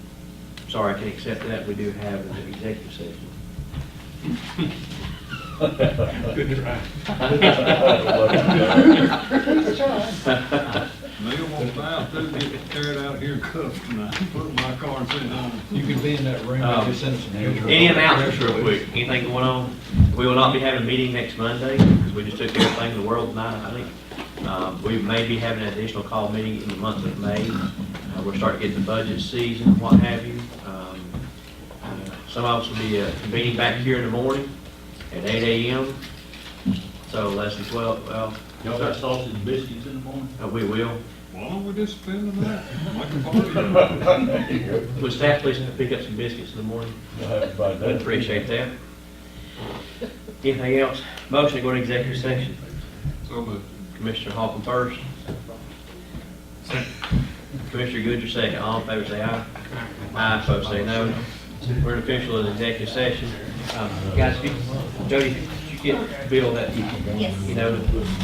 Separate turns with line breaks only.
sorry, I can't accept that, we do have an executive session.
Good try.
Neil won't buy through, get carried out here in cuffs tonight, put in my car and send it home.
You can be in that room
Um,
with your citizen here.
Any announcements real quick, anything going on? We will not be having a meeting next Monday, because we just took care of things in the world tonight, I think. Um, we may be having an additional call meeting in the month of May. Uh, we're starting to get the budget season, and what have you. Um, uh, Some of us will be, uh, meeting back here in the morning at eight AM. So less than twelve, well,
Y'all got sausage and biscuits in the morning?
uh, we will.
Why don't we just spend the night, like a party?
Would staff please pick up some biscuits in the morning? I'd appreciate that. Anything else? Motion to go to executive session.
So, but
Commissioner Hawkins first. Commissioner Goodger second. All in favor say aye. Aye, folks say no. We're in official and executive session. Um, Guys, if you- Jody, if you get Bill that,
Yes.
you know,